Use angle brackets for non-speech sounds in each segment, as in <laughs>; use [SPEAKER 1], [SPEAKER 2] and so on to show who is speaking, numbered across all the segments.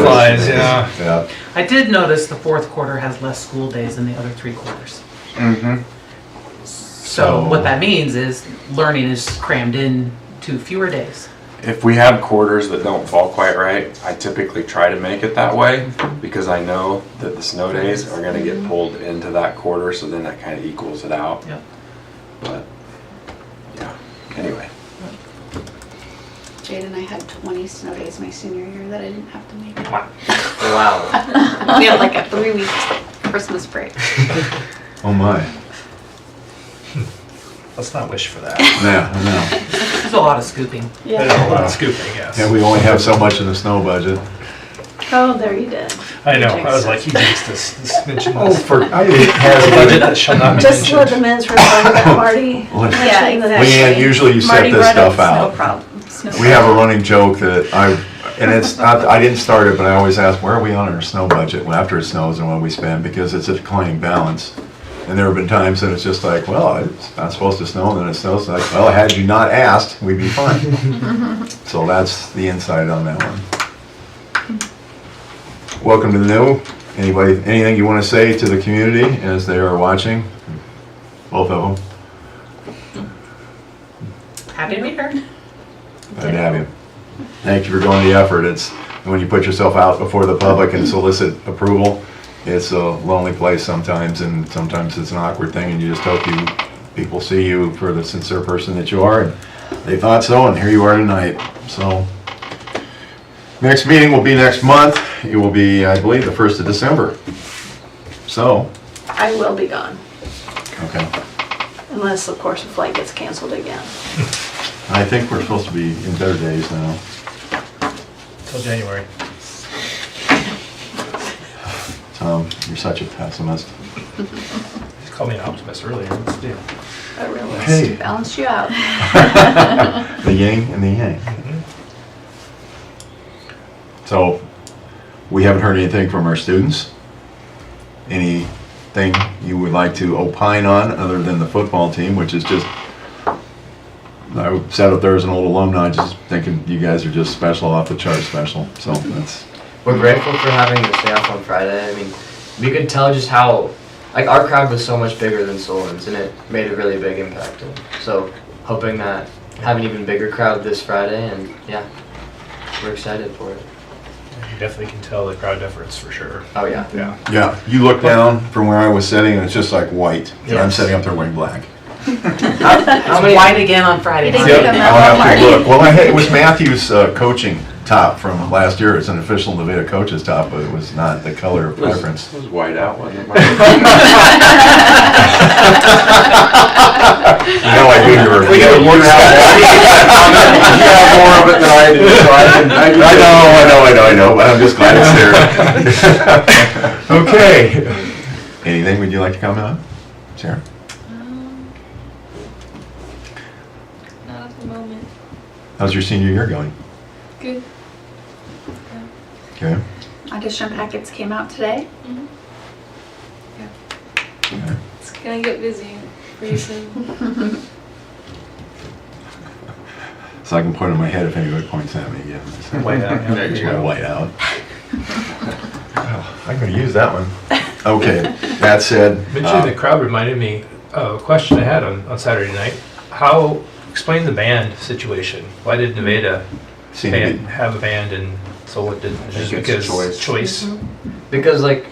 [SPEAKER 1] days, yeah.
[SPEAKER 2] Yeah.
[SPEAKER 3] I did notice the fourth quarter has less school days than the other three quarters.
[SPEAKER 1] Mm-hmm.
[SPEAKER 3] So
[SPEAKER 2] So-
[SPEAKER 3] what that means is learning is crammed in to fewer days.
[SPEAKER 2] If we have quarters that don't fall quite right, I typically try to make it that way because I know that the snow days are gonna get pulled into that quarter, so then that kind of equals it out.
[SPEAKER 3] Yep.
[SPEAKER 2] But, yeah, anyway.
[SPEAKER 4] Jade and I had 20 snow days my senior year that I didn't have to make.
[SPEAKER 5] Wow.
[SPEAKER 4] We had like a three week Christmas <laughs> break.
[SPEAKER 6] Oh my.
[SPEAKER 5] Let's not wish for that.
[SPEAKER 6] Yeah, I know.
[SPEAKER 3] There's a lot of scooping.
[SPEAKER 1] There's a lot
[SPEAKER 6] Wow.
[SPEAKER 1] of scooping, yes.
[SPEAKER 6] Yeah, we only have so much in the snow budget.
[SPEAKER 4] Oh, there you did.
[SPEAKER 1] I know, I was like, you jinxed us, this mentioned
[SPEAKER 6] Oh,
[SPEAKER 1] this.
[SPEAKER 6] for, I didn't
[SPEAKER 1] A budget that
[SPEAKER 6] have
[SPEAKER 1] shall not be
[SPEAKER 7] Just let the
[SPEAKER 1] mentioned.
[SPEAKER 7] men's room know that Marty.
[SPEAKER 6] What?
[SPEAKER 7] Yeah, exactly.
[SPEAKER 6] Leanne, usually you set this stuff
[SPEAKER 4] No
[SPEAKER 6] out.
[SPEAKER 4] problem. Snow
[SPEAKER 6] We have a running joke that I, and it's, not I didn't start it, but I always ask, where are we on our snow budget Well, after it snows and what we spend? Because it's a declining balance. And there have been times that it's just like, well, it's not supposed to snow, and then it snows, like, well, had you not asked, we'd be fine. So that's the insight on that one. Welcome to the new. Anybody, anything you want to say to the community as they are watching? Both of them.
[SPEAKER 3] Happy to be here.
[SPEAKER 6] Glad to have you. Thank you for going the effort. It's, when you put yourself out before the public and solicit approval, it's a lonely place sometimes, and sometimes it's an awkward thing, and you just hope you, people see you for the sincere person that you are, and they thought so, and here you are tonight, so. Next meeting will be next month. It will be, I believe, the first of December. So,
[SPEAKER 7] I will be gone,
[SPEAKER 6] okay.
[SPEAKER 7] unless, of course, the flight gets canceled again.
[SPEAKER 6] I think we're supposed to be in better days now.
[SPEAKER 1] Till January.
[SPEAKER 6] Tom, you're such a pessimist.
[SPEAKER 1] You called me an optimist earlier, what's the deal?
[SPEAKER 7] I realize.
[SPEAKER 6] Hey.
[SPEAKER 4] balance you out.
[SPEAKER 6] <laughs> The yin and the yang. So, we haven't heard anything from our students. Anything you would like to opine on other than the football team, which is just, I sat up there as an old alumni, just thinking you guys are just special, off the chart special. So that's,
[SPEAKER 5] We're grateful for having the staff on Friday. I mean, we could tell just how, like, our crowd was so much bigger than Solon's, and it made a really big impact. So, hoping that have an even bigger crowd this Friday, and yeah, we're excited for it.
[SPEAKER 1] You definitely can tell the crowd efforts for sure.
[SPEAKER 5] Oh yeah.
[SPEAKER 1] Yeah.
[SPEAKER 6] yeah, you look down from where I was sitting and it's just like white. And I'm
[SPEAKER 1] Yes.
[SPEAKER 6] sitting up there wearing black.
[SPEAKER 5] How
[SPEAKER 3] It's
[SPEAKER 5] many?
[SPEAKER 3] white again on Friday.
[SPEAKER 4] You didn't
[SPEAKER 3] night.
[SPEAKER 4] get a
[SPEAKER 6] I'll have to
[SPEAKER 4] medal
[SPEAKER 6] look. Well, I had, it was Matthew's uh, coaching top from last year. It's an official Nevada coach's top, but it was not the color of
[SPEAKER 2] It was-
[SPEAKER 6] preference.
[SPEAKER 2] It was white out, wasn't it?
[SPEAKER 6] You know, I do your.
[SPEAKER 2] We gotta look at You have more of it than I do, so I didn't.
[SPEAKER 6] I know, I know, I know, I know, but I'm just glad it's there. <laughs>
[SPEAKER 2] <laughs>
[SPEAKER 6] Okay.
[SPEAKER 1] <laughs>
[SPEAKER 6] Anything would you like to comment on, Sarah?
[SPEAKER 8] Not at the moment.
[SPEAKER 6] How's your senior year going?
[SPEAKER 8] Good.
[SPEAKER 6] Okay.
[SPEAKER 4] Audition packets came out today.
[SPEAKER 6] okay.
[SPEAKER 8] It's gonna get busy pretty soon.
[SPEAKER 6] So I can point in my head if anybody points at me, yeah.
[SPEAKER 1] White out, yeah.
[SPEAKER 6] There's my white out. I'm gonna use that one. Okay, that said.
[SPEAKER 1] Mentioning
[SPEAKER 6] uh,
[SPEAKER 1] the crowd reminded me of a question I had on, on Saturday night. How, explain the band situation. Why did Nevada
[SPEAKER 6] seem to
[SPEAKER 1] ban-
[SPEAKER 6] be-
[SPEAKER 1] have a band and Solon didn't? Just
[SPEAKER 2] it's
[SPEAKER 1] because
[SPEAKER 2] choice.
[SPEAKER 1] Choice.
[SPEAKER 5] Because like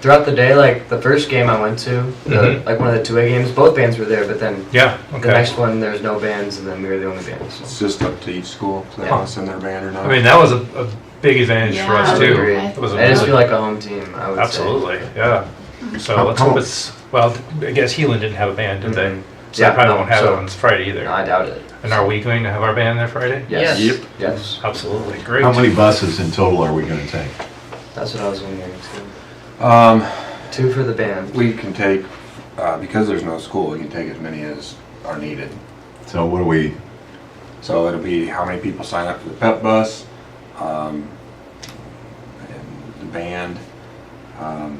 [SPEAKER 5] throughout the day, like the first game I went to, the,
[SPEAKER 1] Mhm.
[SPEAKER 5] like one of the two A games, both bands were there, but then
[SPEAKER 1] Yeah,
[SPEAKER 5] the
[SPEAKER 1] okay.
[SPEAKER 5] next one there was no bands, and then we were the only band. So.
[SPEAKER 2] It's just up to each school, if they want to send their band or not.
[SPEAKER 1] I mean, that was a, a big advantage for
[SPEAKER 4] Yeah,
[SPEAKER 1] us
[SPEAKER 5] I
[SPEAKER 1] too.
[SPEAKER 5] agree.
[SPEAKER 1] It was a
[SPEAKER 5] I
[SPEAKER 1] really-
[SPEAKER 5] just feel like a home team. I would
[SPEAKER 1] Absolutely, yeah. So
[SPEAKER 6] How- Mm-hmm.
[SPEAKER 1] let's
[SPEAKER 6] how-
[SPEAKER 1] hope it's, well, I guess Healing didn't have a band,
[SPEAKER 5] say.
[SPEAKER 1] did they?
[SPEAKER 5] Mhm.
[SPEAKER 1] So they
[SPEAKER 5] Yeah,
[SPEAKER 1] probably
[SPEAKER 5] no,
[SPEAKER 1] won't have it
[SPEAKER 5] so-
[SPEAKER 1] on Friday either.
[SPEAKER 5] No, I doubt it.
[SPEAKER 1] And are we going to have our band there Friday?
[SPEAKER 5] Yes.
[SPEAKER 2] Yes. Yep.
[SPEAKER 5] Yes.
[SPEAKER 1] Absolutely, great.
[SPEAKER 6] How many buses in total are we gonna take?
[SPEAKER 5] That's what I was wondering too.
[SPEAKER 2] Um,
[SPEAKER 5] Two for the band.
[SPEAKER 2] we can take, uh, because there's no school, we can take as many as are needed.
[SPEAKER 6] So what do we,
[SPEAKER 2] So it'll be how many people sign up for the pep bus, um, and the band, um,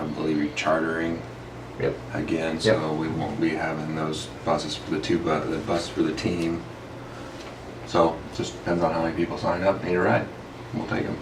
[SPEAKER 2] I believe you're chartering
[SPEAKER 5] Yep.
[SPEAKER 2] again, so we won't be having those buses for the two, bu- the bus for the team. So just depends on how many people sign up, need a ride, we'll take them.